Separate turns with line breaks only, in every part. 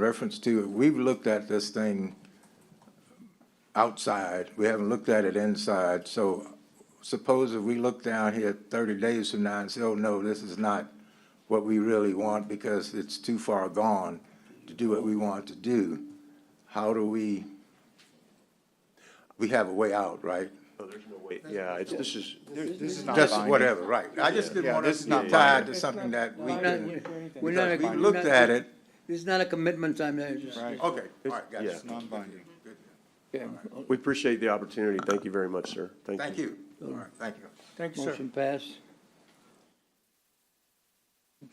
reference to, we've looked at this thing outside, we haven't looked at it inside, so suppose if we look down here thirty days from now and say, oh, no, this is not what we really want because it's too far gone to do what we want to do, how do we, we have a way out, right?
Yeah, it's, this is, this is not
Just
binding.
whatever, right, I just didn't
Yeah,
want
this
us to
is not
be tied to something that we
We're
can,
not- we're not-
because we
we're
looked
not-
at it,
It's not a commitment time, it's just.
Right.
okay, all right,
Yeah.
gotcha.
It's non-binding.
Okay.
We appreciate the opportunity. Thank you very much, sir. Thank you.
Thank you, all right, thank you.
Thank you, sir.
Motion pass.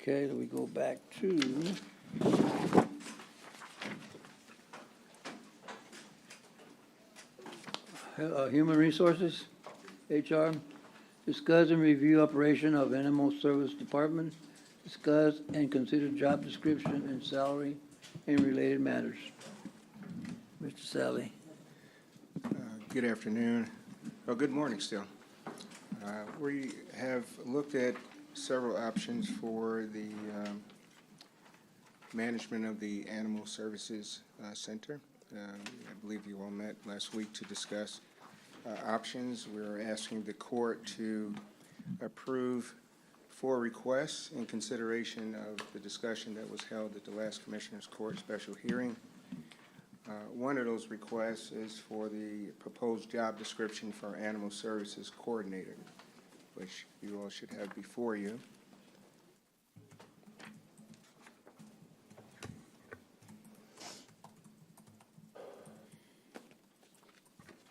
Okay, then we go back to. Uh, Human Resources, HR, discuss and review operation of Animal Service Department, discuss and consider job description and salary and related matters. Mr. Sally,
Good afternoon, or good morning still. Uh, We have looked at several options for the um, management of the Animal Services uh, Center. Um, I believe you all met last week to discuss uh, options. We're asking the court to approve four requests in consideration of the discussion that was held at the last Commissioners Court special hearing. Uh, One of those requests is for the proposed job description for Animal Services Coordinator, which you all should have before you.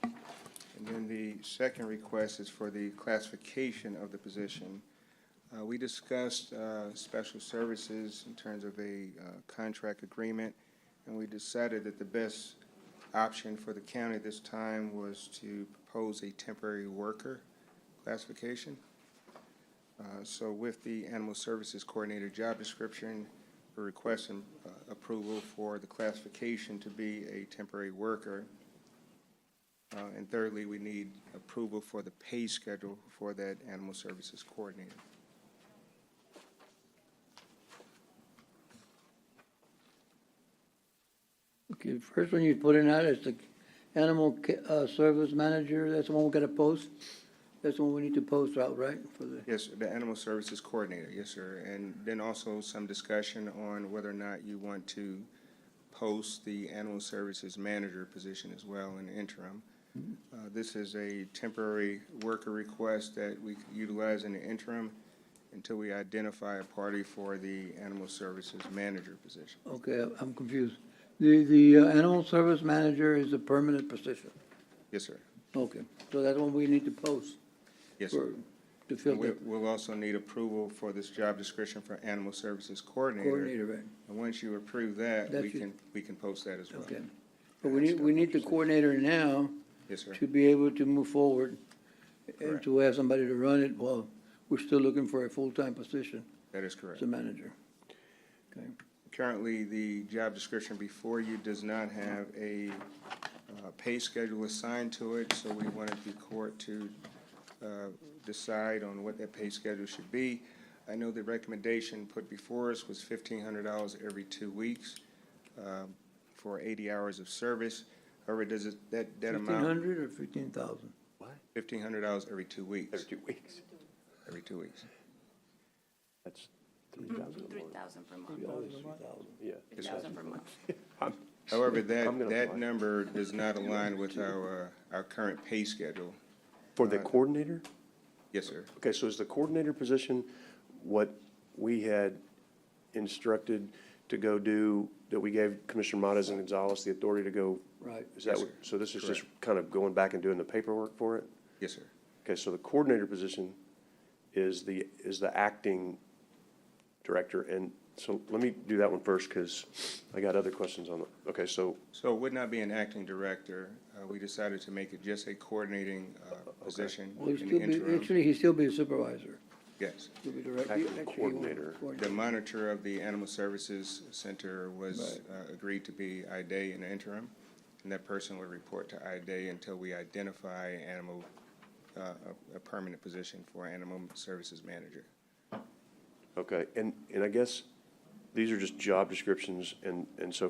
And then the second request is for the classification of the position. Uh, We discussed uh, special services in terms of a uh, contract agreement, and we decided that the best option for the county this time was to propose a temporary worker classification. Uh, So with the Animal Services Coordinator job description, we're requesting uh, approval for the classification to be a temporary worker. Uh, And thirdly, we need approval for the pay schedule for that Animal Services Coordinator.
okay, first one you put in out is the animal ca- uh, service manager, that's the one we gotta post? That's the one we need to post out, right, for the,
Yes, the Animal Services Coordinator, yes, sir. And then also some discussion on whether or not you want to post the Animal Services Manager position as well in the interim.
Mm-hmm.
Uh, This is a temporary worker request that we could utilize in the interim until we identify a party for the Animal Services Manager position.
okay, I'm confused. The, the uh, animal service manager is a permanent position,
Yes, sir.
okay, so that's one we need to post
Yes, sir.
for, to fill
And we-
the
We'll also need approval for this job description for Animal Services Coordinator.
coordinator, right,
And once you approve that, we
That's it.
can, we can post that as well.
okay. But we need, we need the coordinator now
Yes, sir.
to be able to move forward and
Correct.
to have somebody to run it while we're still looking for a full-time position
That is
as
correct.
a manager. Okay,
Currently, the job description before you does not have a uh, pay schedule assigned to it, so we wanted the court to uh, decide on what that pay schedule should be. I know the recommendation put before us was fifteen hundred dollars every two weeks um, for eighty hours of service. However, does it, that, that
fifteen
amount,
hundred or fifteen thousand?
fifteen hundred dollars every two
There's
weeks,
two weeks.
every two weeks.
That's three thousand a
Three
month.
thousand per month,
Yeah.
three thousand per month.
However,
I'm
that,
gonna
that
apply.
number does not align with our, uh, our current pay schedule.
For
uh,
the coordinator?
Yes, sir.
Okay, so is the coordinator position what we had instructed to go do, that we gave Commissioner Modas and Gonzalez the authority to go?
Right.
Is that,
Yes,
what-
sir.
so this is just kind of going back and doing the paperwork for it?
Yes, sir.
Okay, so the coordinator position is the, is the acting director, and so let me do that one first, because I got other questions on it. Okay, so,
So it would not be an acting director. Uh, we decided to make it just a coordinating, uh, position
Well, he'd
in
still
the
be,
interim.
actually, he'd still be a supervisor,
Yes.
he'll be direct.
Acting
actually, he won't be
coordinator.
The monitor of the Animal Services Center was, uh, agreed to be IDA in the interim. And that person would report to IDA until we identify animal, uh, a, a permanent position for Animal Services Manager.
okay, and, and I guess these are just job descriptions and, and so